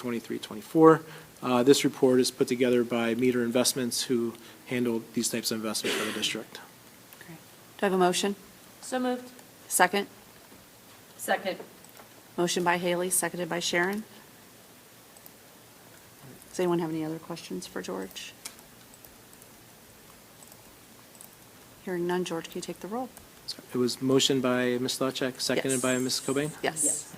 23, 24. Uh, This report is put together by Meter Investments, who handle these types of investments for the district. Do I have a motion? So moved. Second? Second. Motion by Haley, seconded by Sharon. Does anyone have any other questions for George? Hearing none, George, can you take the roll? So It was motioned by Ms. Stavcek, seconded Yes. by Ms. Cobain. Yes.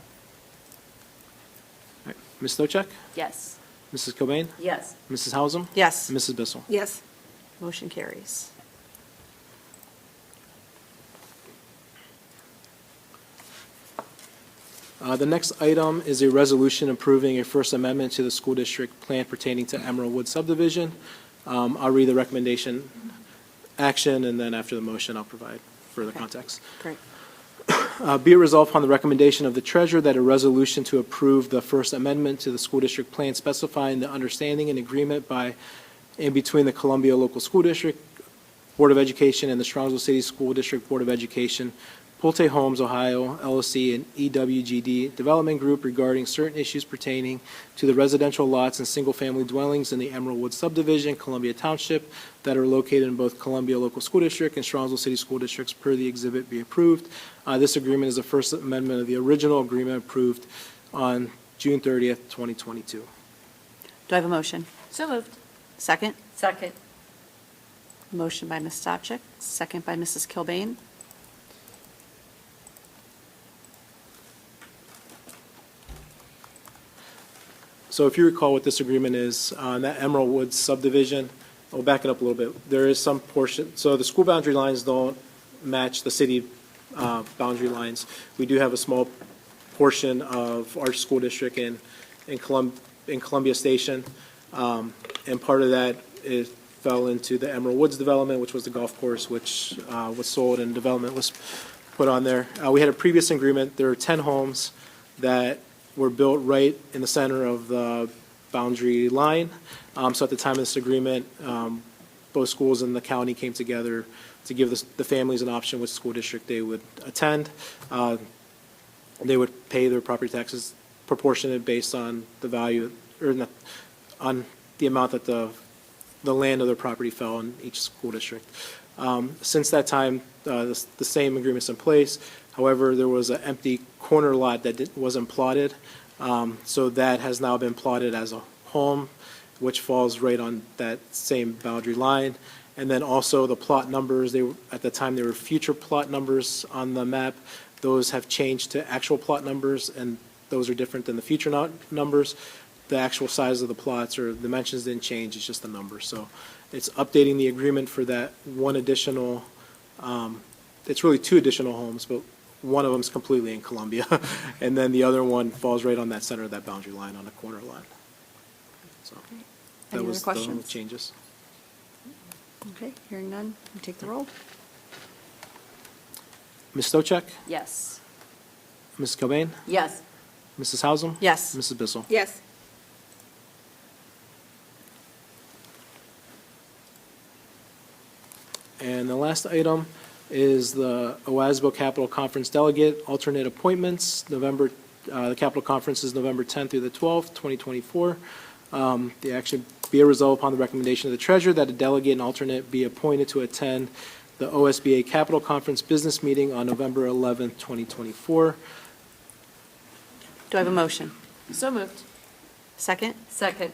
All right. Ms. Stavcek, Yes. Mrs. Cobain, Yes. Mrs. Hausum, Yes. and Mrs. Bissell. Yes. Motion carries. Uh, The next item is a resolution approving a First Amendment to the school district plan pertaining to Emerald Wood subdivision. Um, I'll read the recommendation, action, and then after the motion, I'll provide further Okay. context. Great. Uh, Be it resolved upon the recommendation of the treasurer that a resolution to approve the First Amendment to the school district plan specifying the understanding and agreement by and between the Columbia Local School District Board of Education and the Strongsville City School District Board of Education, Pulte Homes, Ohio, LLC, and E EWGD Development Group regarding certain issues pertaining to the residential lots and single-family dwellings in the Emerald Woods subdivision, Columbia Township, that are located in both Columbia Local School District and Strongsville City School Districts per the exhibit be approved. Uh, This agreement is the first amendment of the original agreement approved on June 30th, 2022. Do I have a motion? So moved. Second? Second. Motion by Ms. Stavcek, second by Mrs. Kilbane. So if you recall what this agreement is, on that Emerald Woods subdivision, I'll back it up a little bit. There is some portion, so the school boundary lines don't match the city uh, boundary lines. We do have a small portion of our school district in, in Colum, in Columbia Station. Um, And part of that is, fell into the Emerald Woods development, which was the golf course, which uh, was sold and development was put on there. Uh, We had a previous agreement, there are 10 homes that were built right in the center of the boundary line. Um, So at the time of this agreement, um, both schools and the county came together to give the the families an option which school district they would attend. Uh, They would pay their property taxes proportionate based on the value, or not- on the amount that the, the land of their property fell in each school district. Um, Since that time, uh, the the same agreement's in place. However, there was an empty corner lot that did- wasn't plotted. Um, So that has now been plotted as a home, which falls right on that same boundary line. And then also the plot numbers, they, were- at the time, there were future plot numbers on the map. Those have changed to actual plot numbers, and those are different than the future nu- numbers. The actual size of the plots or dimensions didn't change, it's just the number. So it's updating the agreement for that one additional, um, it's really two additional homes, but one of them's completely in Columbia. And then the other one falls right on that center of that boundary line on the corner lot. So Any that other was the only questions? changes. Okay, hearing none, you take the roll. Ms. Stochek, Yes. Ms. Cobain, Yes. Mrs. Hausum? Yes. Mrs. Bissell? Yes. And the last item is the OASBO Capital Conference Delegate Alternate Appointments, November, uh, the Capital Conference is November 10th through the 12th, 2024. Um, The action be a result upon the recommendation of the treasurer that a delegate and alternate be appointed to attend the OSBA Capital Conference Business Meeting on November 11th, 2024. Do I have a motion? So moved. Second? Second.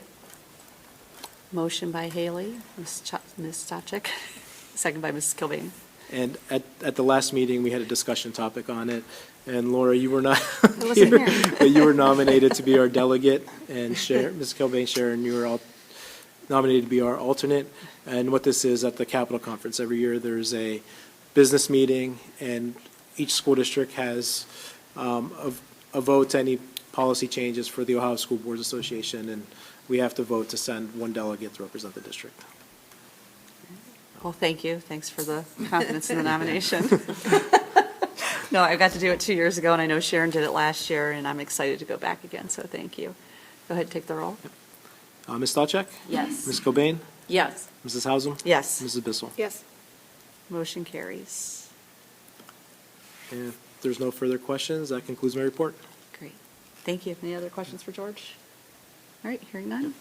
Motion by Haley, Ms. Cha- Ms. Stavcek, second by Mrs. Kilbane. And at, at the last meeting, we had a discussion topic on it, and Laura, you were not I wasn't here, here. but you were nominated to be our delegate, and Sharon, Ms. Kilbane, Sharon, you were all nominated to be our alternate. And what this is, at the Capitol Conference, every year, there's a business meeting, and each school district has um, a a vote to any policy changes for the Ohio School Boards Association, and we have to vote to send one delegate to represent the district. Well, thank you. Thanks for the confidence in the nomination. No, I got to do it two years ago, and I know Sharon did it last year, and I'm excited to go back again, so thank you. Go ahead, take the roll. Uh, Ms. Stavcek? Yes. Ms. Cobain? Yes. Mrs. Hausum? Yes. Mrs. Bissell? Yes. Motion carries. And if there's no further questions, that concludes my report. Great. Thank you. Any other questions for George? All right, hearing none.